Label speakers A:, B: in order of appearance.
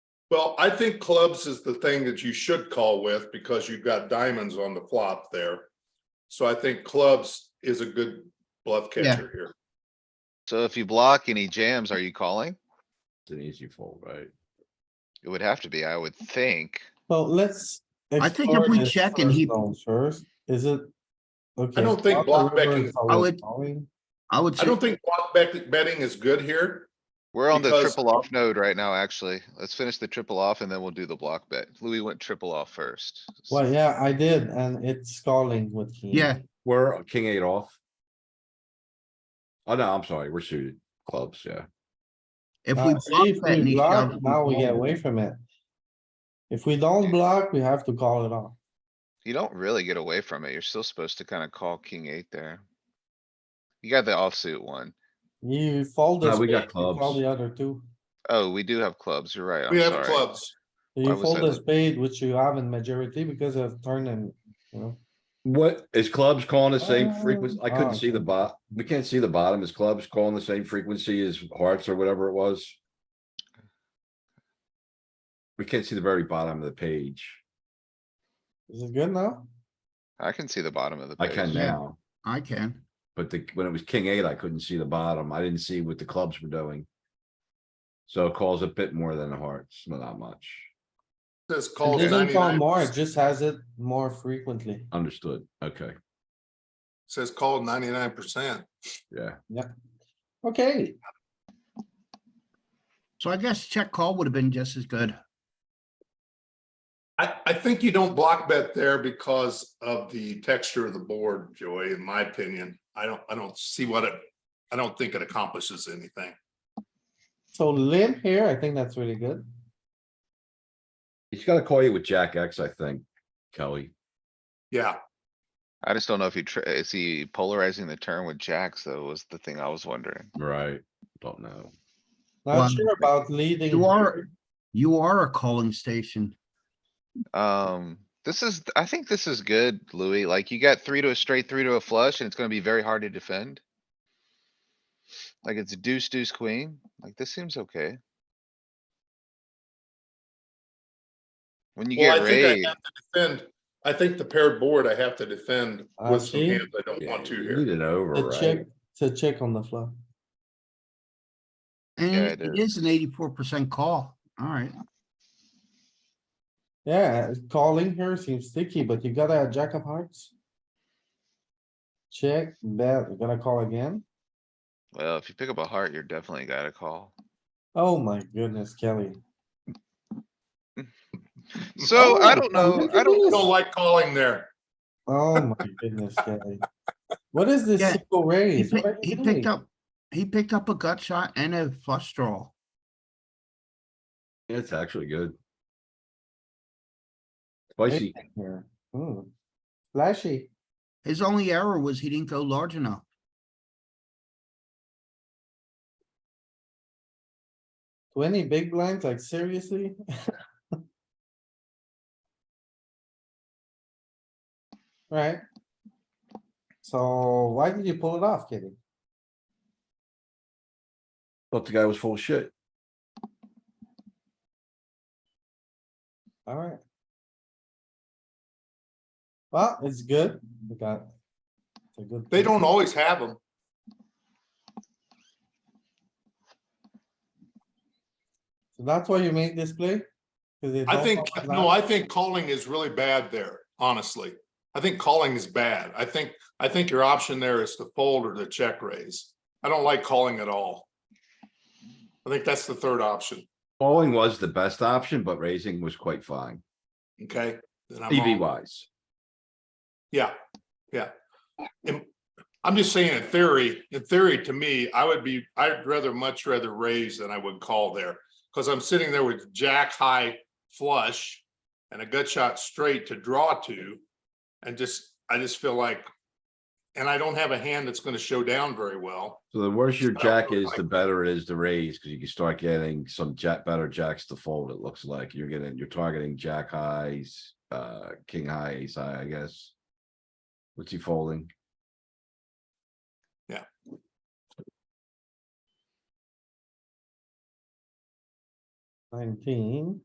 A: Well, I think clubs is the thing that you should call with because you've got diamonds on the flop there. So I think clubs is a good bluff
B: Yeah.
A: catcher here.
C: So if you block and he jams, are you calling?
D: It's an easy fold, right?
C: It would have to be, I would think.
E: So let's.
B: I think if
E: explore
B: we
E: this
B: check and
E: first
B: he-
E: zone First, is it? okay,
A: don't think
E: flop
A: block
E: the river
A: betting-
E: is
B: I
E: always
B: would-
E: calling.
B: I would
A: I
B: say,
A: don't think block bet- betting is good here.
C: We're on the
A: Because-
C: triple off node right now, actually. Let's finish the triple off and then we'll do the block bet. Louis went triple off first.
E: Well, yeah, I did, and it's calling with. king.
B: yeah,
D: We're king eight off. Oh, no, I'm sorry, we're suited clubs, yeah.
B: if we
E: Uh,
B: block
E: see, if
B: that and
E: we
B: he
E: block,
B: shoves, we
E: now we get
B: fold.
E: away from it. If we don't block, we have to call it off.
C: You don't really get away from it. You're still supposed to kinda call king eight there. You got the offsuit one.
E: You fold the
D: No, we got
E: spade, you call
D: clubs.
E: the other two.
C: Oh, we do have clubs. You're right.
A: We
C: I'm
A: have
C: sorry.
A: clubs.
C: Why
E: You
C: was
E: fold
C: I
E: the
C: look-
E: spade, which you have in majority because of turn and, you know.
D: What, is clubs calling the same frequency?
E: Um,
D: I
E: ah,
D: couldn't see the
E: okay.
D: bot, we can't see the bottom, is clubs calling the same frequency as hearts or whatever it was? We can't see the very bottom of the page,
E: Is it good now?
C: I can see the bottom of the
D: I
C: page.
D: can now,
B: I can.
D: but the, when it was king eight, I couldn't see the bottom, I didn't see what the clubs were doing. So it calls a bit more than the hearts, but not much,
A: This
E: It
A: calls
E: doesn't call
A: ninety-nine,
E: more, it just has it more frequently.
D: understood, okay,
A: says call ninety-nine percent.
D: yeah.
E: Okay,
B: So I guess check call would have been just as good.
A: I, I think you don't block bet there because of the texture of the board, Joey, in my opinion. I don't, I don't see what it, I don't think it accomplishes anything.
E: so limp here, I think that's really good.
D: He's gotta call you with jack X, I think, Kelly.
A: Yeah,
C: I just don't know if he, tr- is he polarizing the turn with jacks though, was the thing I was wondering.
D: Right, don't know.
B: Well,
E: Not sure about leading.
B: You are,
E: here.
B: you are a calling station.
C: Um, this is, I think this is good, Louis. Like you got three to a straight, three to a flush, and it's gonna be very hard to defend. Like it's deuce, deuce, queen. Like this seems okay. When you
A: well,
C: get
A: I think I
C: raised,
A: have to defend, I think the paired board I have to defend
E: I
A: with some
E: see.
A: hands I don't want to
D: You
A: here.
D: Need an over,
E: It's a check,
D: right?
E: it's a check on the flop.
B: And
C: Yeah,
B: it
C: it
B: it is an eighty-four percent call. All right.
E: Yeah, calling here seems sticky, but you got a jack of hearts. Check, bet, we're gonna call again.
C: well, if you pick up a heart, you're definitely gotta call.
E: Oh my goodness, Kelly.
C: So I don't know,
E: look
C: I
E: at
C: don't,
E: this.
A: Don't like calling there.
E: Oh my goodness, Kelly. What is this
B: Yeah,
E: single
B: He
E: raise?
B: pick-
E: What are you
B: he
E: doing?
B: picked up, he picked up a gut shot and a flush draw.
D: It's actually good.
E: Big
D: Spicy,
E: thing here. Hmm. Flashy.
B: His only error was he didn't go large enough.
E: Twenty big blinds, like seriously? Right? So why did you pull it off, Kenny?
D: thought the guy was full of shit.
E: Alright. Well, it's good. We got. it's a good
A: They
E: thing.
A: don't always have them.
E: So That's why you make this play? 'Cause they
A: I
E: don't
A: think,
E: call it
A: no,
E: out?
A: I think calling is really bad there, honestly. I think calling is bad. I think, I think your option there is to fold or to check raise. I don't like calling at all. I think that's the third option,
D: Calling was the best option, but raising was quite fine,
A: okay? Then I'm
D: EV
A: wrong.
D: wise.
A: Yeah, yeah. And I'm just saying in theory, in theory, to me, I would be, I'd rather, much rather raise than I would call there. Cause I'm sitting there with jack high flush and a gut shot straight to draw to. And just, I just feel like, and I don't have a hand that's gonna show down very well.
D: So the worse your
A: So,
D: jack is,
A: like-
D: the better it is to raise, cause you can start getting some jack, better jacks to fold, it looks like. You're getting, you're targeting jack highs, uh, king highs, I I guess. What's he folding?
E: Nineteen.